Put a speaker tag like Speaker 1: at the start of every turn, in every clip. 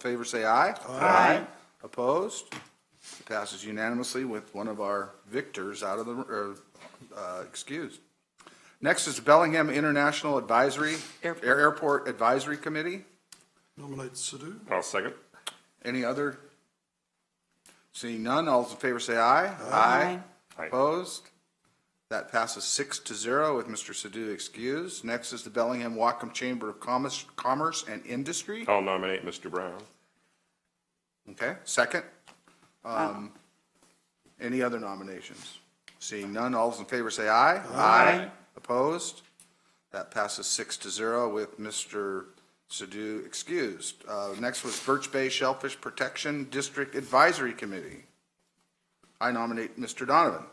Speaker 1: favor, say aye.
Speaker 2: Aye.
Speaker 1: Opposed? It Passes unanimously with one of our victors out of the, or, uh, excused. Next is Bellingham International Advisory,
Speaker 3: Airport.
Speaker 1: Airport Advisory Committee.
Speaker 2: Nominate Sadoo.
Speaker 4: I'll second.
Speaker 1: Any other? Seeing none, all those in favor say aye.
Speaker 4: Aye.
Speaker 1: Opposed? That passes six to zero with Mr. Sadoo excused. Next is the Bellingham Wacom Chamber of Commerce, Commerce and Industry.
Speaker 4: I'll nominate Mr. Brown.
Speaker 1: Okay, second. Um, Any other nominations? Seeing none, all those in favor say aye. Aye. Opposed? That passes six to zero with Mr. Sadoo excused. Uh, Next was Birch Bay Shellfish Protection District Advisory Committee. I nominate Mr. Donovan.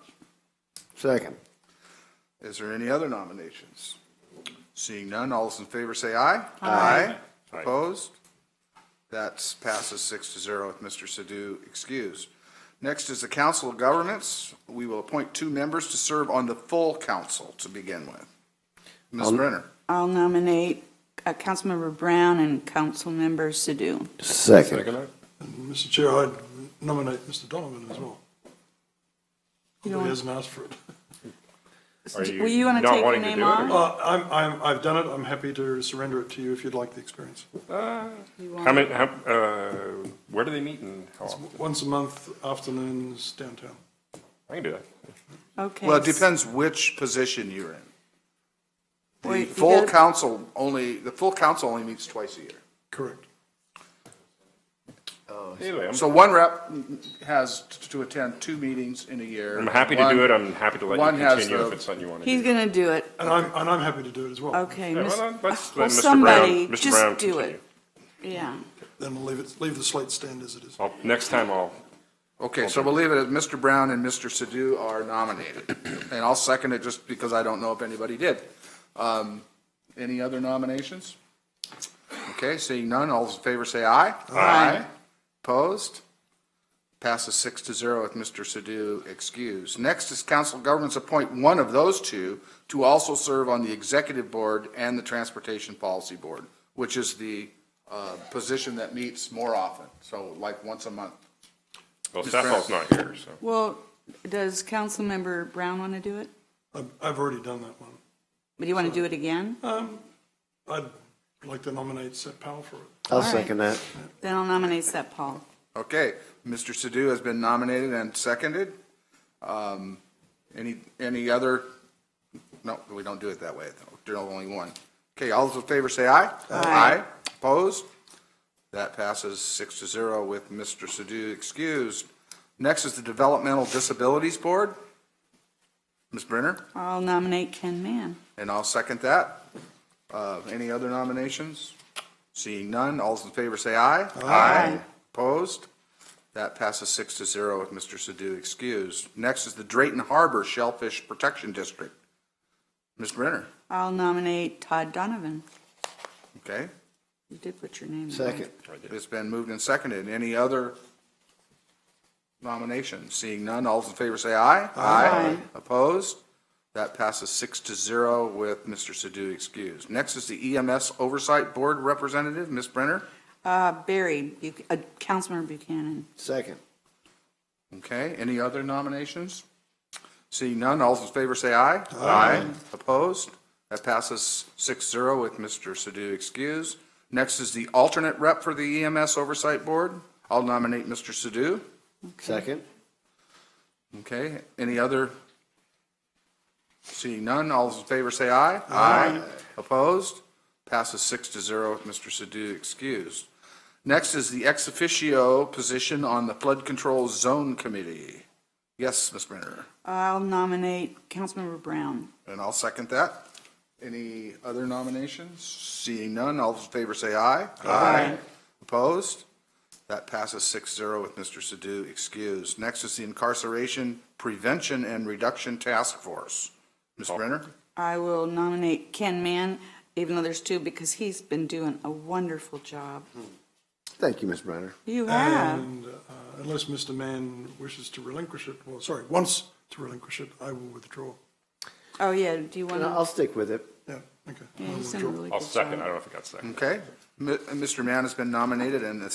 Speaker 5: Second.
Speaker 1: Is there any other nominations? Seeing none, all those in favor say aye. Aye.
Speaker 4: Aye.
Speaker 1: Opposed? That passes six to zero with Mr. Sadoo excused. Next is the Council of Governments. We will appoint two members to serve on the full council to begin with. Ms.
Speaker 4: Um,
Speaker 1: Brenner,
Speaker 3: I'll nominate uh, Councilmember Brown and Councilmember Sadoo.
Speaker 5: Second.
Speaker 4: that?
Speaker 2: And Mr. Chair, I'd nominate Mr. Donovan as well.
Speaker 3: You
Speaker 2: Although He
Speaker 3: don't-
Speaker 2: hasn't asked for it.
Speaker 4: Are you
Speaker 3: Will you want to
Speaker 4: not
Speaker 3: take your
Speaker 4: wanting to
Speaker 3: name
Speaker 4: do it, or-
Speaker 3: off?
Speaker 2: Uh, I'm, I'm, I've done it. I'm happy to surrender it to you if you'd like the experience.
Speaker 4: How many, how, uh, where do they meet and how often?
Speaker 2: Once a month, afternoons downtown.
Speaker 4: I can do that.
Speaker 3: Okay.
Speaker 1: well, it depends which position you're in.
Speaker 3: Wait,
Speaker 1: The
Speaker 3: you
Speaker 1: full
Speaker 3: gotta-
Speaker 1: council only, the full council only meets twice a year.
Speaker 2: Correct.
Speaker 4: Anyway, I'm,
Speaker 1: So one rep has t- to attend two meetings in a year.
Speaker 4: I'm happy to
Speaker 1: One-
Speaker 4: do it. I'm happy to let
Speaker 1: one
Speaker 4: you
Speaker 1: has
Speaker 4: continue
Speaker 1: the-
Speaker 4: if it's something you want to do.
Speaker 3: He's going to do it.
Speaker 2: And I'm, and I'm happy to do it as well.
Speaker 3: Okay.
Speaker 4: Yeah,
Speaker 3: Miss-
Speaker 4: well, then let's
Speaker 3: Well,
Speaker 4: let Mr. Brown-
Speaker 3: somebody,
Speaker 4: Mr.
Speaker 3: just
Speaker 4: Brown
Speaker 3: do
Speaker 4: continue.
Speaker 3: it. Yeah.
Speaker 2: Then we'll leave it, leave the slate stand as it is.
Speaker 4: I'll, next time I'll,
Speaker 1: Okay, so we'll leave it at Mr. Brown and Mr. Sadoo are nominated. And I'll second it just because I don't know if anybody did. Um, Any other nominations? Okay, seeing none, all those in favor say aye. Aye. Opposed? Passes six to zero with Mr. Sadoo excused. Next is council governments appoint one of those two to also serve on the executive board and the transportation policy board, which is the uh, position that meets more often, so like once a month.
Speaker 4: well,
Speaker 1: Mr. Brown.
Speaker 4: Staffel's not here, so.
Speaker 3: Well, does Councilmember Brown want to do it?
Speaker 2: I've, I've already done that one.
Speaker 3: But do you want to do it again?
Speaker 2: I'd like to nominate Seth Powell for it.
Speaker 5: I'll
Speaker 3: right.
Speaker 5: second that.
Speaker 3: Then I'll nominate Seth Paul.
Speaker 1: Okay, Mr. Sadoo has been nominated and seconded. Um, Any, any other, no, we don't do it that way, though. There's only one. Okay, all those in favor say aye. Aye. Opposed? That passes six to zero with Mr. Sadoo excused. Next is the Developmental Disabilities Board. Ms. Brenner?
Speaker 3: I'll nominate Ken Mann.
Speaker 1: And I'll second that. Uh, Any other nominations? Seeing none, all those in favor say aye. Aye. Opposed? That passes six to zero with Mr. Sadoo excused. Next is the Drayton Harbor Shellfish Protection District. Ms. Brenner,
Speaker 3: I'll nominate Todd Donovan.
Speaker 1: okay?
Speaker 3: You did put your name in. right?
Speaker 5: Second.
Speaker 1: It's been moved and seconded. Any other nominations? Seeing none, all those in favor say aye. Aye. Opposed? That passes six to zero with Mr. Sadoo excused. Next is the EMS Oversight Board Representative, Ms. Brenner.
Speaker 3: Uh, Barry, Buch- uh, Councilmember Buchanan.
Speaker 5: Second.
Speaker 1: Okay, any other nominations? Seeing none, all those in favor say aye. Aye. Opposed? That passes six zero with Mr. Sadoo excused. Next is the alternate rep for the EMS Oversight Board. I'll nominate Mr. Sadoo.
Speaker 5: Second.
Speaker 1: Okay, any other? Seeing none, all those in favor say aye. Aye. Opposed? Passes six to zero with Mr. Sadoo excused. Next is the ex officio position on the Flood Control Zone Committee. Yes, Ms. Brenner,
Speaker 3: I'll nominate Councilmember Brown.
Speaker 1: and I'll second that. Any other nominations? Seeing none, all those in favor say aye. Aye. Opposed? That passes six zero with Mr. Sadoo excused. Next is the Incarceration Prevention and Reduction Task Force. Ms. Brenner?
Speaker 3: I will nominate Ken Mann, even though there's two, because he's been doing a wonderful job.
Speaker 5: Thank you, Ms. Brenner.
Speaker 3: You have.
Speaker 2: And uh, unless Mr. Mann wishes to relinquish it, well, sorry, wants to relinquish it, I will withdraw.
Speaker 3: Oh, yeah, do you want
Speaker 5: And
Speaker 3: to?
Speaker 5: I'll stick with it.
Speaker 2: Yeah, okay. I
Speaker 3: Yeah,
Speaker 2: will
Speaker 3: he's done a
Speaker 2: withdraw.
Speaker 3: really
Speaker 4: I'll
Speaker 3: good
Speaker 4: second.
Speaker 3: job.
Speaker 4: I don't know if I got second.
Speaker 1: Okay. M- Mr. Mann has been nominated and is